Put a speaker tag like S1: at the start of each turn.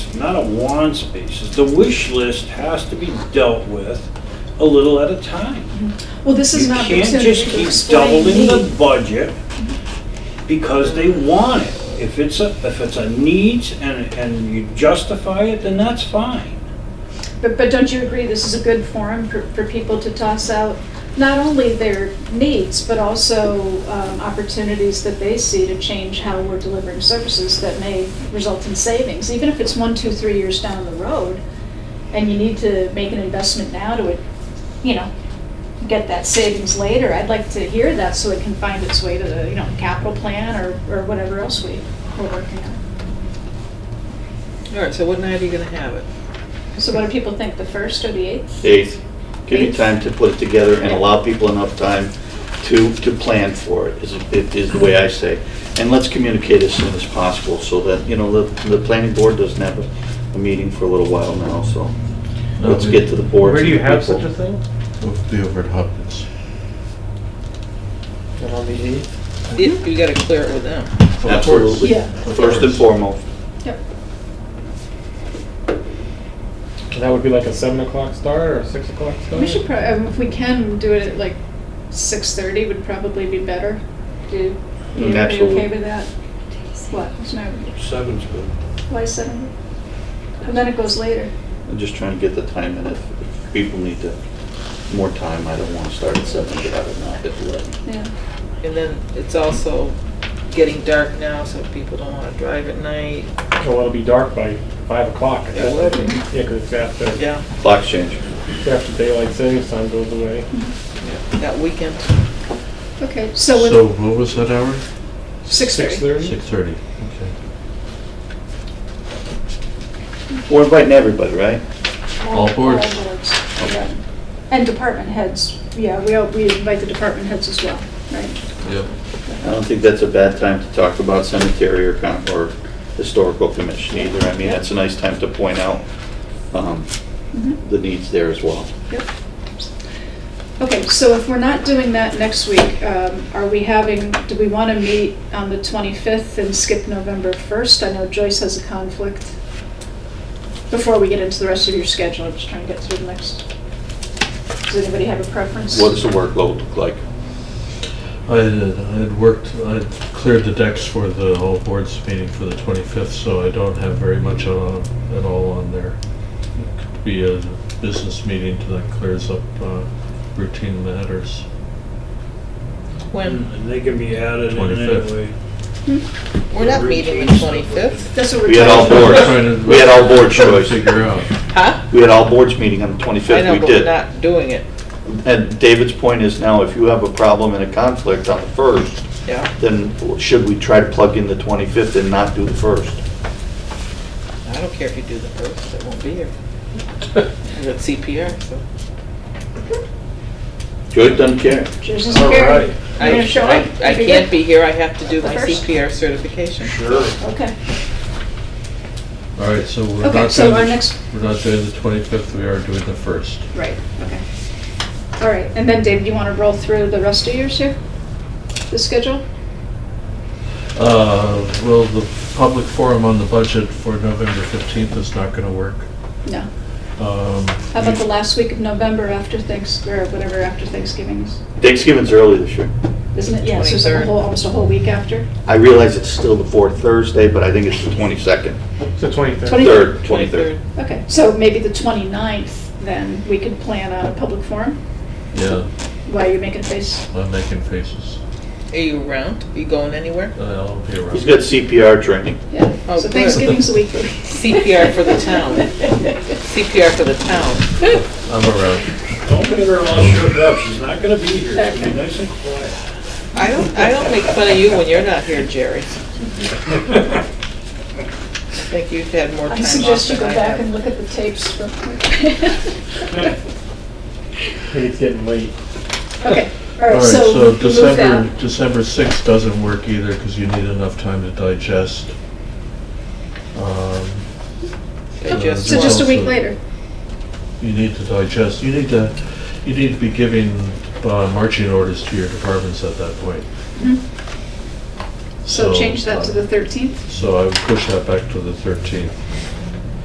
S1: not a wants basis. The wish list has to be dealt with a little at a time.
S2: Well, this is
S1: You
S2: an opportunity
S1: can't
S2: to
S1: just
S2: explain.
S1: keep doubling the
S2: need.
S1: budget because they want it. If it's a, if it's a needs and, and you justify it, then that's fine.
S2: But, but don't you agree, this is a good forum for, for people to toss out not only their needs, but also um, opportunities that they see to change how we're delivering services that may result in savings, even if it's one, two, three years down the road, and you need to make an investment now to, you know, get that savings later, I'd like to hear that so it can find its way to the, you know, capital plan or, or whatever else we, we're working on.
S3: All right, so what night are you gonna have it?
S2: So what do people think, the first or the eighth?
S4: 8th. Give you
S2: Eighth.
S4: time to put it together and allow people enough time to, to plan for it, is, it is the way I say. And let's communicate as soon as possible so that, you know, the, the planning board doesn't have a, a meeting for a little while now, so let's get to the board.
S5: Mm-hmm. Where do you have such a thing?
S6: The over at Hopkins.
S5: And on the eighth?
S3: You you gotta clear it with them.
S4: Absolutely.
S2: Yeah.
S4: First and foremost.
S2: Yep.
S5: And that would be like a seven o'clock start or a six o'clock start?
S2: We should probably, um, if we can, do it at like six thirty would probably be better. Do, you
S4: Mm,
S2: everybody okay
S4: absolutely.
S2: with that? What, what's my,
S1: Seven's good.
S2: why seven? And then it goes later.
S4: I'm just trying to get the time in if if people need to, more time, I don't want to start at 7, get out of now at 11.
S2: Yeah.
S3: And then it's also getting dark now, so people don't wanna drive at night.
S5: Well, it'll be dark by five o'clock.
S3: Yeah, it will be.
S5: Yeah, 'cause it's after,
S3: Yeah,
S4: Clock change.
S5: it's after daylight savings time goes away.
S3: that weekend.
S2: Okay, so
S6: So
S2: with
S6: what was that hour?
S2: six thirty.
S6: Six thirty, okay.
S4: We're inviting everybody, right?
S6: All boards.
S2: yeah. And department heads, yeah, we, all- we invite the department heads as well, right?
S6: Yep.
S4: I don't think that's a bad time to talk about cemetery or, con- or historical commission either. I mean, that's a nice time to point out, um,
S2: Mhm.
S4: the needs there as well.
S2: Yep. Okay, so if we're not doing that next week, um, are we having, do we want to meet on the 25th and skip November 1st? I know Joyce has a conflict. Before we get into the rest of your schedule, I'm just trying to get through the next. Does anybody have a preference?
S4: What does the workload look like?
S6: I had, I had worked, I had cleared the decks for the all boards meeting for the twenty-fifth, so I don't have very much on, at all on there. It could Be a business meeting that clears up, uh, routine matters.
S3: When?
S1: And They can be added in
S6: 25th.
S1: anyway.
S3: We're not meeting the twenty-fifth.
S2: That's what we're.
S4: We had all
S2: talking about.
S4: boards, we had all board
S6: Trying to
S4: choice.
S6: figure out.
S3: Huh?
S4: We had all boards meeting on the
S3: I
S4: twenty-fifth,
S3: know,
S4: we
S3: but we're
S4: did.
S3: not doing it,
S4: And David's point is now, if you have a problem and a conflict on the first,
S3: yeah.
S4: then should we try to plug in the twenty-fifth and not do the first?
S3: I don't care if you do the first, I won't be here. I'm at CPR, so.
S4: Joyce doesn't care.
S2: Joyce is
S1: All
S2: here.
S1: right,
S2: You're gonna show
S3: I-
S2: up?
S3: I can't be here, I have to do
S2: The
S3: my
S2: first?
S3: CPR certification.
S1: sure.
S2: Okay,
S6: All right, so we're not.
S2: okay, so
S6: doing
S2: our
S6: the-
S2: next,
S6: We're not doing the twenty-fifth, we are doing the first.
S2: right, okay. All right, and then David, you want to roll through the rest of yours here? The schedule?
S6: Uh, well, the public forum on the budget for November fifteenth is not gonna work.
S2: No.
S6: Um,
S2: How about the last week of November after Thanks, or whatever after Thanksgiving is?
S4: Thanksgiving's early this year.
S2: Isn't it? Yeah, so it's like a
S3: 23rd.
S2: whole, almost a whole week after.
S4: I realize it's still the fourth Thursday, but I think it's the twenty-second,
S5: So twenty-third.
S2: Twenty-
S4: third, twenty-third.
S2: Okay, so maybe the 29th, then, we could plan a public forum
S6: Yeah,
S2: while you're making face.
S6: I'm making faces.
S3: Are you around? Are you going anywhere?
S6: I'll be around.
S4: He's got CPR training.
S2: Yeah,
S3: Oh,
S2: so
S3: good.
S2: Thanksgiving's a week.
S3: CPR for the town. CPR for the town.
S6: I'm around.
S1: Don't get her all shook up, she's not gonna be here, she'll
S2: Okay.
S1: be nice and quiet.
S3: I don't, I don't make fun of you when you're not here, Jerry. I think you've had more time
S2: I
S3: off
S2: suggest you go
S3: than I
S2: back and
S3: have.
S2: look at the tapes for.
S5: It's getting late.
S2: Okay, all
S6: All
S2: right,
S6: right,
S2: so
S6: so
S2: move that.
S6: December, December sixth doesn't work either because you need enough time to digest. Um,
S3: I just
S2: So just a
S3: want-
S2: week later.
S6: You need to digest, you need to, you need to be giving uh, marching orders to your departments at that point.
S2: Mhm. So change that to the
S6: uh,
S2: 13th.
S6: So I would push that back to the 13th.